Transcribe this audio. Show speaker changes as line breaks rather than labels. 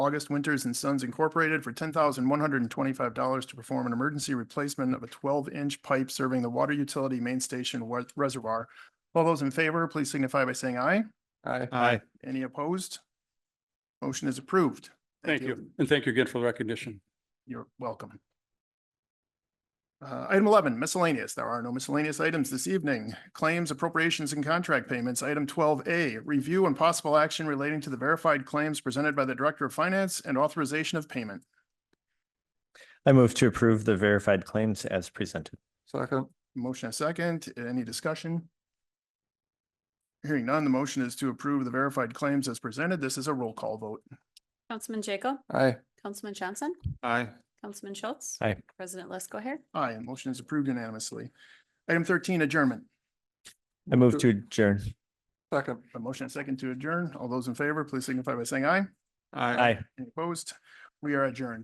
August Winters and Sons Incorporated for ten thousand one hundred and twenty-five dollars to perform an emergency replacement of a twelve-inch pipe serving the water utility main station wa- reservoir. All those in favor, please signify by saying aye.
Aye.
Aye.
Any opposed? Motion is approved.
Thank you. And thank you again for the recognition.
You're welcome. Uh, item eleven, miscellaneous. There are no miscellaneous items this evening. Claims, appropriations, and contract payments. Item twelve A, review and possible action relating to the verified claims presented by the Director of Finance and authorization of payment.
I move to approve the verified claims as presented.
Second.
Motion a second. Any discussion? Hearing none, the motion is to approve the verified claims as presented. This is a roll call vote.
Councilman Jacob,
Aye.
Councilman Johnson,
Aye.
Councilman Schultz.
Aye.
President Lesko here.
Aye, and motion is approved unanimously. Item thirteen, adjournment.
I move to adjourn.
Second.
A motion and second to adjourn. All those in favor, please signify by saying aye.
Aye.
Any opposed? We are adjourned.